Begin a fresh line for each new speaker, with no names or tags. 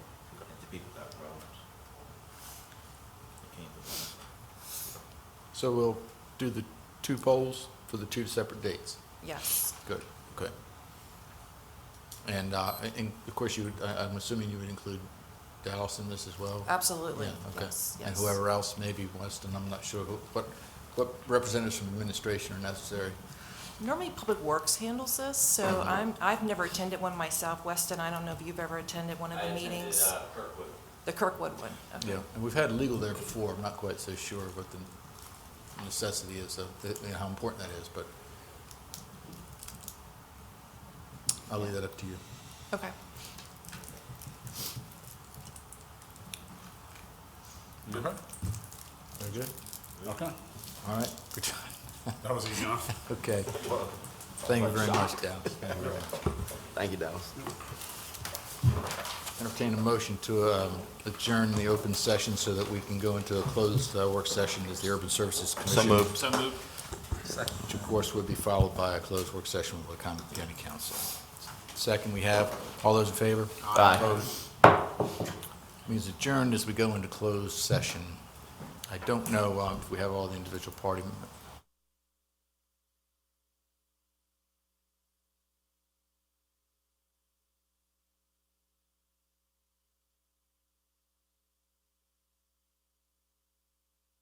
So we'll do the two polls for the two separate dates.
Yes,
Good, okay. And, uh, and of course you, would- I, I'm assuming you would include Dallas in this as well?
absolutely.
Yeah, okay.
Yes,
And
yes.
whoever else maybe wants to, and I'm not sure who, what, what representatives from administration are necessary.
Normally, Public Works handles this, so
Uh-huh.
I'm, I've never attended one myself. Weston, I don't know if you've ever attended one of
I
the
attended,
meetings?
uh, Kirkwood.
The Kirkwood one? okay.
And we've had legal there before, I'm not quite so sure what the necessity is of, the- you know, how important that is, but I'll leave that up to you.
Okay.
Okay,
Very good.
okay.
All right, good job.
That was easy enough.
Okay. Thank you very much, Dallas. Thank you, Dallas. Entertain a motion to um, adjourn the open session so that we can go into a closed uh, work session as the Urban Services Commission.
So moved.
Which of course would be followed by a closed work session with Wycombe County Council. Second, we have, all those in favor?
Aye.
Opposed? Means adjourned as we go into closed session. I don't know um, if we have all the individual party